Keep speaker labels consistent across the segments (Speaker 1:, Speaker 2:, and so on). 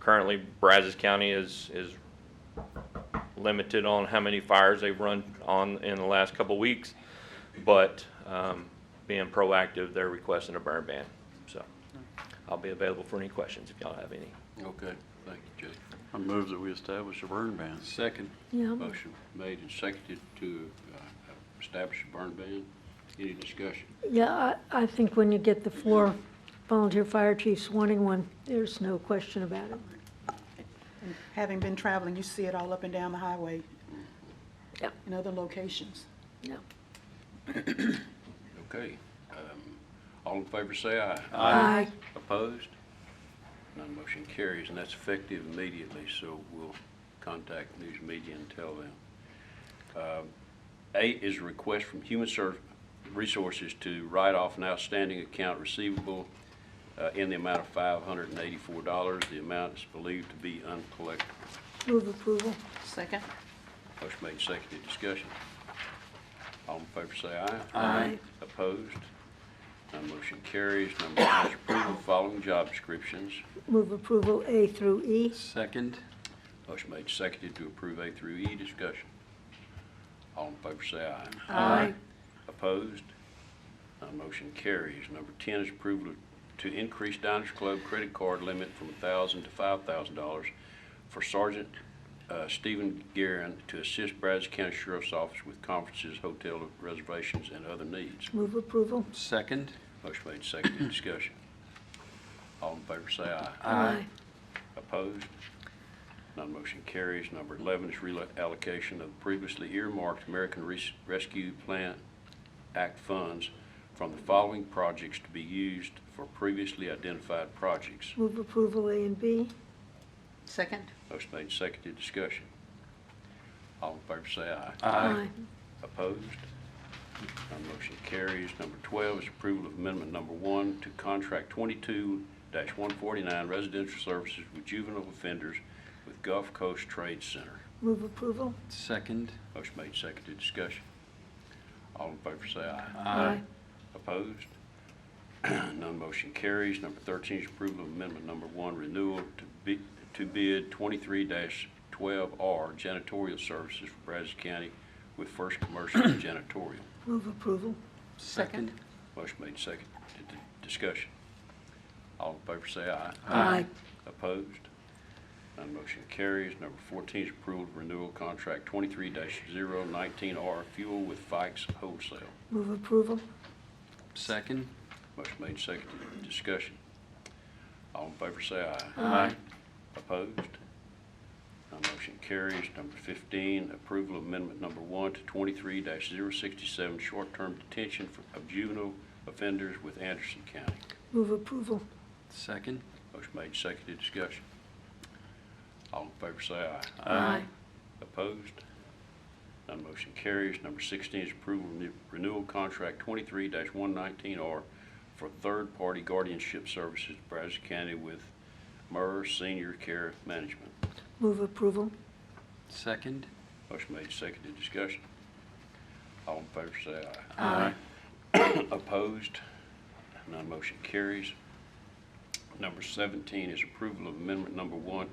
Speaker 1: currently Brazos County is, is limited on how many fires they've run on in the last couple weeks. But, um, being proactive, they're requesting a burn ban, so. I'll be available for any questions if y'all have any.
Speaker 2: Okay, thank you, Judge.
Speaker 3: I move that we establish a burn ban.
Speaker 2: Second.
Speaker 4: Yeah.
Speaker 2: Motion made and seconded to uh, establish a burn ban. Any discussion?
Speaker 4: Yeah, I, I think when you get the four volunteer fire chiefs wanting one, there's no question about it.
Speaker 5: And Having been traveling, you see it all up and down the highway
Speaker 4: Yeah.
Speaker 5: in other locations.
Speaker 4: Yeah.
Speaker 2: Okay. um, All in favor, say aye.
Speaker 4: Aye.
Speaker 2: Opposed? None motion carries, and that's effective immediately, so we'll contact news media and tell them. Um, Eight is a request from Human Ser- Resources to write off an outstanding account receivable uh, in the amount of $584. The amount is believed to be uncollectible.
Speaker 4: Move approval.
Speaker 5: Second?
Speaker 2: Motion made, seconded, discussion. All in favor say aye.
Speaker 4: Aye.
Speaker 2: Opposed? None motion carries. Number nine is approval of following job descriptions.
Speaker 4: Move approval A through E.
Speaker 3: Second.
Speaker 2: Motion made, seconded, to approve A through E, discussion. All in favor say aye.
Speaker 4: Aye.
Speaker 2: Opposed? None motion carries. Number 10 is approval to increase Diners Club credit card limit from $1,000 to $5,000 for Sergeant uh, Stephen Guerin to assist Brazos County Sheriff's Office with conferences, hotel reservations, and other needs.
Speaker 4: Move approval.
Speaker 3: Second.
Speaker 2: Motion made, seconded, discussion. All in favor say aye.
Speaker 4: Aye.
Speaker 2: Opposed? None motion carries. Number 11 is reallocation of previously earmarked American Res- Rescue Plan Act funds from the following projects to be used for previously identified projects.
Speaker 4: Move approval A and B.
Speaker 5: Second?
Speaker 2: Motion made, seconded, discussion. All in favor say aye.
Speaker 4: Aye.
Speaker 2: Opposed? None motion carries. Number 12 is approval of amendment number one to contract 22-149 residential services with juvenile offenders with Gulf Coast Trade Center.
Speaker 4: Move approval.
Speaker 3: Second.
Speaker 2: Motion made, seconded, discussion. All in favor say aye.
Speaker 4: Aye.
Speaker 2: Opposed? None motion carries. Number 13 is approval of amendment number one, renewal to bid, to bid 23-12R janitorial services for Brazos County with First Commercial Janitorial.
Speaker 4: Move approval.
Speaker 3: Second.
Speaker 2: Motion made, seconded, discussion. All in favor say aye.
Speaker 4: Aye.
Speaker 2: Opposed? None motion carries. Number 14 is approval of renewal contract 23-019R Fuel with Fikes Wholesale.
Speaker 4: Move approval.
Speaker 3: Second.
Speaker 2: Motion made, seconded. Discussion. All in favor say aye.
Speaker 3: Aye.
Speaker 2: Opposed? None motion carries. Number 15, approval of amendment number one to 23-067 Short-Term Detention for- of Juvenile Offenders with Anderson County.
Speaker 4: Move approval.
Speaker 3: Second.
Speaker 2: Motion made, seconded. Discussion. All in favor say aye.
Speaker 4: Aye.
Speaker 2: Opposed? None motion carries. Number 16 is approval of renewal contract 23-119R for third-party guardianship services, Brazos County with MER Senior Care Management.
Speaker 4: Move approval.
Speaker 3: Second.
Speaker 2: Motion made, seconded, discussion. All in favor say
Speaker 4: Aye.
Speaker 2: aye. Opposed? None motion carries. Number 17 is approval of amendment number one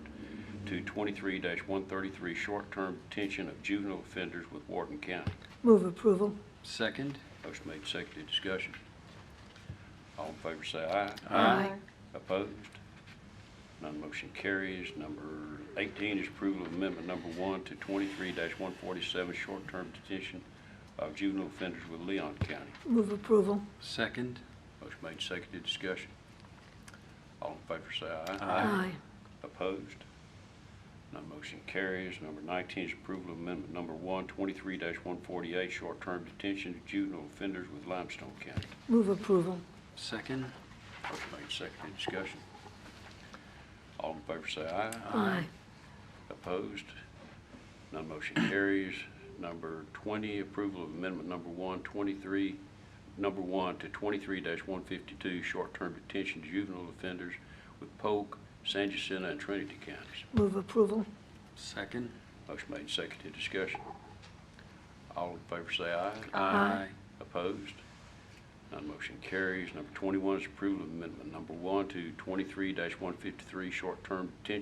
Speaker 2: to 23-133, short-term detention of juvenile offenders with Wharton County.
Speaker 4: Move approval.
Speaker 3: Second.
Speaker 2: Motion made, seconded, discussion. All in favor say aye.
Speaker 4: Aye.
Speaker 2: Opposed? None motion carries. Number 18 is approval of amendment number one to 23-147, short-term detention of juvenile offenders with Leon County.
Speaker 4: Move approval.
Speaker 3: Second.
Speaker 2: Motion made, seconded, discussion. All in favor say aye.
Speaker 4: Aye.
Speaker 2: Opposed? None motion carries. Number 19 is approval of amendment number one, 23-148, short-term detention of juvenile offenders with Limestone County.
Speaker 4: Move approval.
Speaker 3: Second.
Speaker 2: Motion made, seconded, discussion. All in favor say aye.
Speaker 4: Aye.
Speaker 2: Opposed? None motion carries. Number 20, approval of amendment number one, 23, number one to 23-152, short-term detention to juvenile offenders with Polk, San Jacinto, and Trinity counties.
Speaker 4: Move approval.
Speaker 3: Second.
Speaker 2: Motion made, seconded, discussion. All in favor say aye.
Speaker 3: Aye.
Speaker 2: Opposed? None motion carries. Number 21 is approval of amendment number one to 23-153, short-term detention